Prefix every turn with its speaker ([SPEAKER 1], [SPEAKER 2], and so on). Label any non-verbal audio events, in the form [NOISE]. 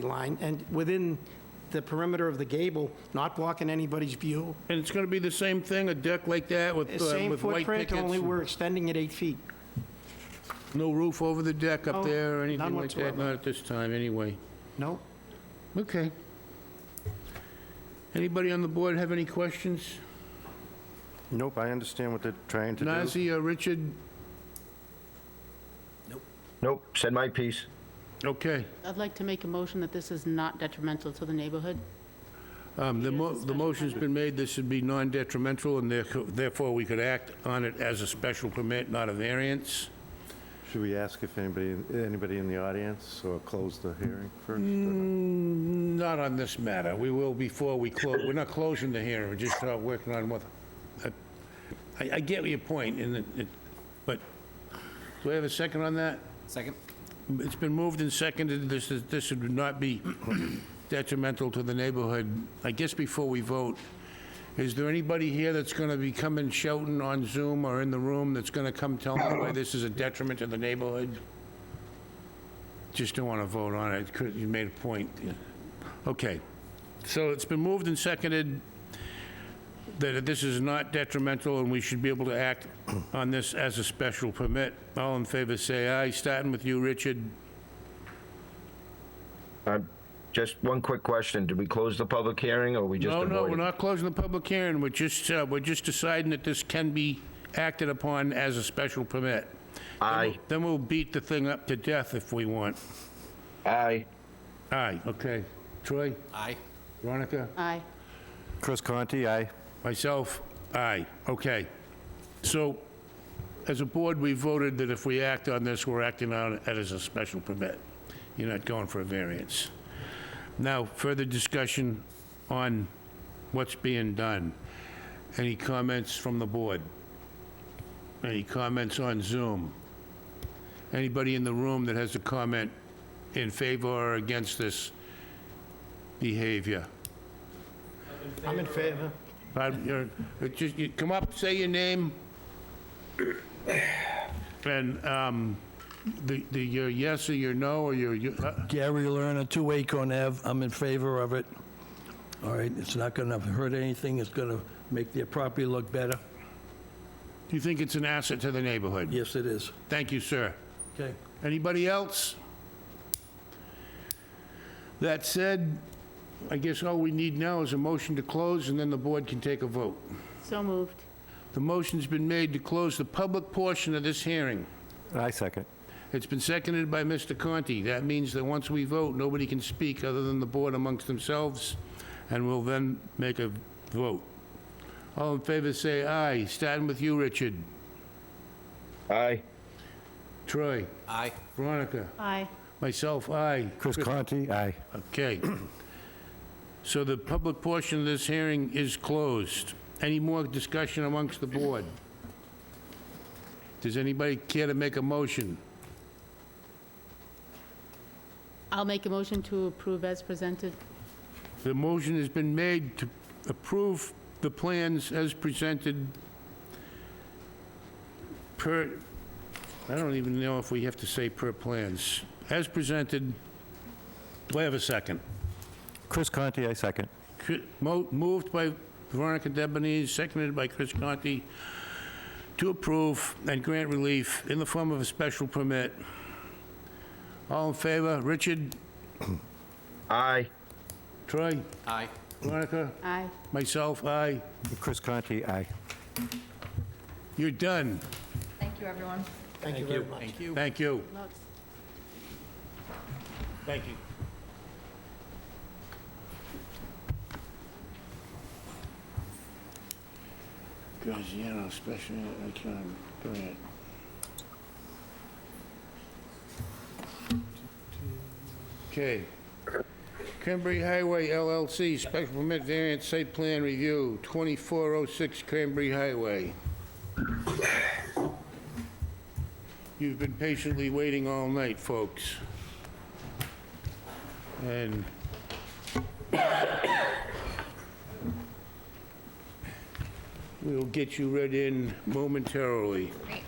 [SPEAKER 1] line, and within the perimeter of the gable, not blocking anybody's view.
[SPEAKER 2] And it's going to be the same thing, a deck like that with, uh,
[SPEAKER 1] Same
[SPEAKER 2] with white
[SPEAKER 1] footprint,
[SPEAKER 2] pickets?
[SPEAKER 1] only
[SPEAKER 2] and
[SPEAKER 1] we're extending it eight feet.
[SPEAKER 2] No roof over the deck
[SPEAKER 1] No,
[SPEAKER 2] up there or
[SPEAKER 1] Oh, none
[SPEAKER 2] anything like that?
[SPEAKER 1] whatsoever.
[SPEAKER 2] Not at this time, anyway.
[SPEAKER 1] No?
[SPEAKER 2] Okay. Anybody on the board have any questions?
[SPEAKER 3] Nope, I understand what they're trying to do.
[SPEAKER 2] Nazi or Richard?
[SPEAKER 3] Nope, said my piece.
[SPEAKER 2] Okay.
[SPEAKER 4] I'd like to make a motion that this is not detrimental to the neighborhood.
[SPEAKER 2] Um, The mo- the motion's been made, this should be non-detrimental, and therefore- therefore we could act on it as a special permit, not a variance.
[SPEAKER 3] Should we ask if anybody, anybody in the audience, or close the hearing first? or
[SPEAKER 2] Not
[SPEAKER 3] not?
[SPEAKER 2] on this matter. We will before we close. We're not closing the hearing, we're just uh, working on what, I, I get your point, and it- it, but, do I have a second on that?
[SPEAKER 5] Second.
[SPEAKER 2] It's been moved and seconded, this is, this would not be detrimental to the neighborhood. I guess before we vote, is there anybody here that's gonna be coming shouting on Zoom or in the room that's gonna come tell me why this is a detriment to the neighborhood? Just don't wanna vote on it, Could- you made a point. Okay, so it's been moved and seconded that this is not detrimental and we should be able to
[SPEAKER 6] [CLEARS THROAT]
[SPEAKER 2] act on this as a special permit. All in favor, say aye. Starting with you, Richard.
[SPEAKER 6] Just one quick question. Did we close the public hearing or we just
[SPEAKER 2] No,
[SPEAKER 6] avoided?
[SPEAKER 2] no, we're not closing the public hearing. We're just, uh, we're just deciding that this can be acted upon as a special permit.
[SPEAKER 6] Aye,
[SPEAKER 2] Then we'll beat the thing up to death if we want.
[SPEAKER 6] aye.
[SPEAKER 2] Aye, okay. Troy,
[SPEAKER 5] Aye.
[SPEAKER 2] Veronica,
[SPEAKER 4] Aye.
[SPEAKER 3] Chris Conti, aye.
[SPEAKER 2] myself, aye, okay. So, as a board, we voted that if we act on this, we're acting on it as a special permit. You're not going for a variance. Now, further discussion on what's being done. Any comments from the board? Any comments on Zoom? Anybody in the room that has a comment in favor or against this behavior?
[SPEAKER 1] I'm in favor.
[SPEAKER 2] Pardon, you're- uh, just, you come up, say your name. And, um, the, the, your yes or your no, or your, you- uh,
[SPEAKER 7] Gary Lerner, 2 Acorn Ave, I'm in favor of it. All right, it's not going to hurt anything, it's going to make their property look better.
[SPEAKER 2] you think it's an asset to the neighborhood?
[SPEAKER 7] Yes, it is.
[SPEAKER 2] Thank you, sir.
[SPEAKER 7] Okay.
[SPEAKER 2] Anybody else? That said, I guess all we need now is a motion to close, and then the board can take a vote.
[SPEAKER 4] So moved.
[SPEAKER 2] The motion's been made to close the public portion of this hearing.
[SPEAKER 3] I second.
[SPEAKER 2] It's been seconded by Mr. Conti. That means that once we vote, nobody can speak other than the board amongst themselves, and we'll then make a vote. All in favor, say aye. Starting with you, Richard.
[SPEAKER 6] Aye,
[SPEAKER 2] Troy.
[SPEAKER 5] Aye.
[SPEAKER 2] Veronica.
[SPEAKER 4] Aye.
[SPEAKER 2] Myself, aye.
[SPEAKER 3] Chris Conti, aye.
[SPEAKER 2] Okay. So the public portion of this hearing is closed. Any more discussion amongst the board? Does anybody care to make a motion?
[SPEAKER 4] I'll make a motion to approve as presented.
[SPEAKER 2] The motion has been made to approve the plans as presented per, I don't even know if we have to say per plans. As presented, do I have a second?
[SPEAKER 3] Chris Conti, I second.
[SPEAKER 2] Cri- mo- Moved by Veronica Debonese, seconded by Chris Conti, to approve and grant relief in the form of a special permit. All in favor? Richard?
[SPEAKER 6] aye.
[SPEAKER 2] Troy?
[SPEAKER 5] Aye.
[SPEAKER 2] Veronica?
[SPEAKER 4] Aye.
[SPEAKER 2] Myself? Aye.
[SPEAKER 3] Chris Conti, aye.
[SPEAKER 2] You're done.
[SPEAKER 8] Thank you, everyone.
[SPEAKER 1] Thank you very much.
[SPEAKER 5] Thank you.
[SPEAKER 2] Thank you.
[SPEAKER 4] Look.
[SPEAKER 2] Thank you. Graziano Special Economic Grant. Okay. Cranberry Highway LLC, special permit variance site plan review, 2406 Cranberry Highway. You've been patiently waiting all night, folks. And [COUGHS] we'll get you read in momentarily.
[SPEAKER 8] Great.